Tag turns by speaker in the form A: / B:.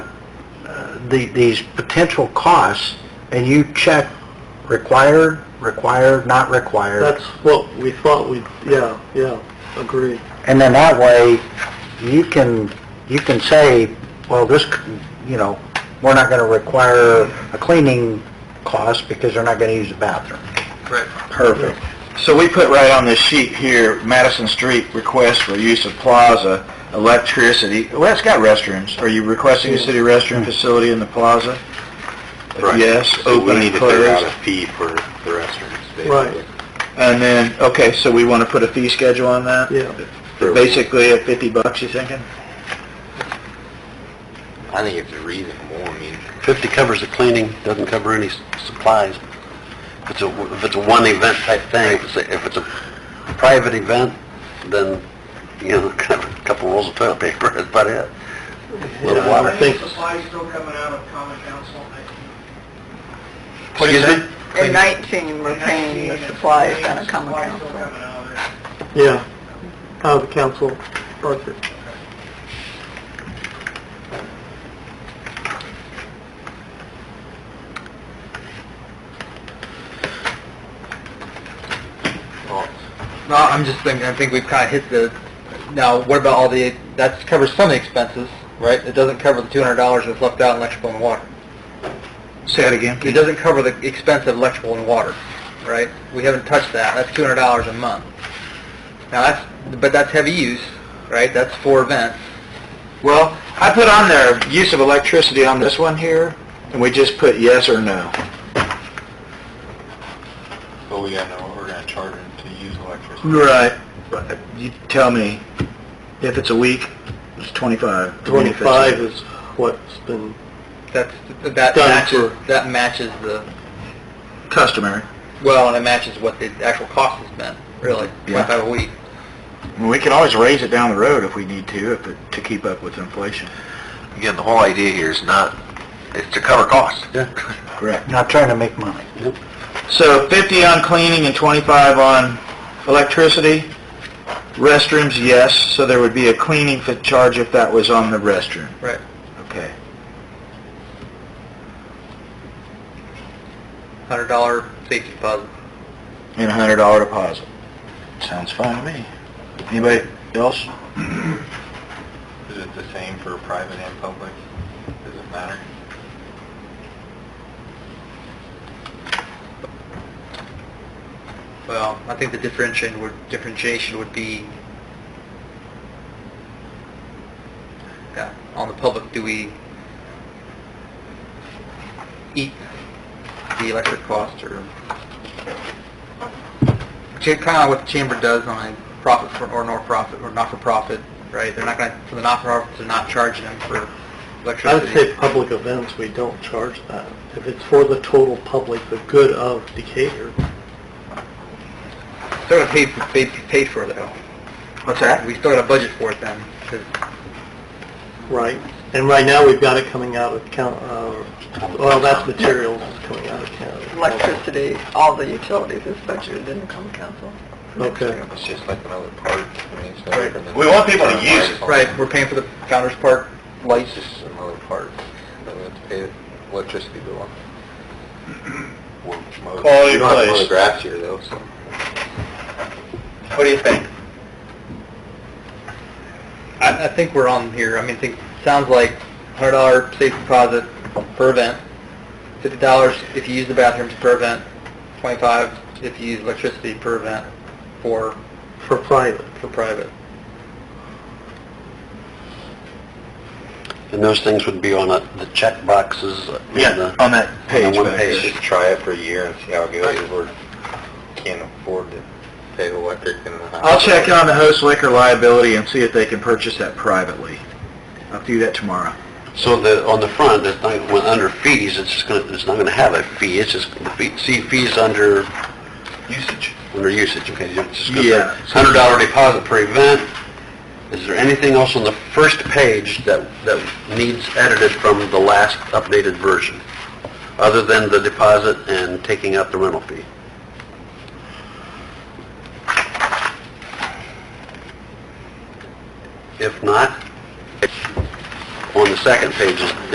A: the, these potential costs, and you check required, required, not required.
B: That's what we thought we, yeah, yeah, agree.
A: And then that way, you can, you can say, well, this, c- you know, we're not gonna require a cleaning cost because they're not gonna use the bathroom.
C: Correct.
A: Perfect.
D: So we put right on this sheet here, Madison Street request for use of plaza, electricity, well, it's got restrooms. Are you requesting a city restroom facility in the plaza? If Yes, open and closed.
C: fee for the restrooms,
B: Right,
D: And then, okay, so we want to put a fee schedule on that?
B: yeah.
D: Basically at 50 bucks, you thinking?
C: I think it's reasonable, I mean.
E: 50 covers the cleaning, doesn't cover any s- supplies. If it's a, if it's a one event type thing, if it's a, if it's a private event, then, you know, kind of a couple rolls of toilet paper, that's about it. Little
B: Yeah, I
E: water.
B: think,
D: supplies still coming out of common council?
E: Excuse me?
F: In 19, we're paying the supplies on a common council.
B: yeah, out of the council budget.
A: No, I'm just thinking, I think we've kind of hit the, now, what about all the, that covers some of the expenses, right? It doesn't cover the two hundred dollars that's left out in electrical and water.
D: Say it again.
A: It doesn't cover the expense of electrical and water, right? We haven't touched that, that's two hundred dollars a month. Now, that's, but that's heavy use, right? That's for events.
D: Well, I put on there, use of electricity on this one here, and we just put yes or no.
C: But we gotta know what we're gonna charge them to use electricity.
D: Right. But You tell me, if it's a week, it's 25.
B: 25 is what's been,
A: That's, that
B: Done
A: matches,
B: for-
A: that matches the,
D: Customary.
A: well, and it matches what the actual cost has been, really,
D: Yeah.
A: twenty-five a week.
D: We can always raise it down the road if we need to, if it- to keep up with inflation.
E: Again, the whole idea here is not, it's to cover costs.
D: Correct.
A: Not trying to make money.
D: So 50 on cleaning and 25 on electricity. Restrooms, yes, so there would be a cleaning fi- charge if that was on the restroom.
A: Right.
D: Okay.
A: Hundred dollar safety deposit.
D: And a $100 deposit. Sounds fine to me. Anybody else?
C: Is it the same for private and public? Does it matter?
A: Well, I think the differentiation would, differentiation would be, yeah, on the public, do we eat the electric cost or, kind of what the chamber does on a profit for- or not-for-profit, or not-for-profit, right? They're not going to, for the not-for-profits, they're not charging them for
B: I
A: electricity.
B: would say public events, we don't charge that. If it's for the total public, the good of Decatur,
A: Still gotta pay, pay, pay for it though. What's that? We still gotta budget for it then, 'cause
B: right? And right now, we've got it coming out of count, uh, well, that's materials coming out of county.
F: Electricity, all the utilities is budgeted in the common council.
B: Okay,
C: It's just like another part. I mean, it's no
A: Right.
C: different than-
D: We want people to use it.
A: Right, we're paying for the Founder's Park
C: It's
A: lights.
C: just another part. Then we have to pay electricity bill on. We're mowing-
D: Quality
C: We don't have to mow
D: place.
C: the grass here though, so.
A: What do you think? I, I think we're on here, I mean, I think, sounds like hundred dollar safe deposit per event, fifty dollars if you use the bathrooms per event, twenty-five if you use electricity per event for,
B: for private.
A: for private.
E: And those things would be on a- the check boxes. and
D: Yeah,
E: the-
D: on that page.
E: one
D: but-
C: We
E: page.
C: should try it for a year and see how it goes. We're, can't afford to pay the electric and the.
D: I'll check on the host liquor liability and see if they can purchase that privately. I'll do that tomorrow.
E: So the, on the front, it's not, when, under fees, it's just gonna, it's not gonna have a fee, it's just, the fee- see fees under,
D: Usage.
E: under usage, okay? it's just gonna say
D: Yeah.
E: Hundred dollar deposit per event. Is there anything else on the first page that, that needs edited from the last updated version? Other than the deposit and taking out the rental fee? If not, on the second page is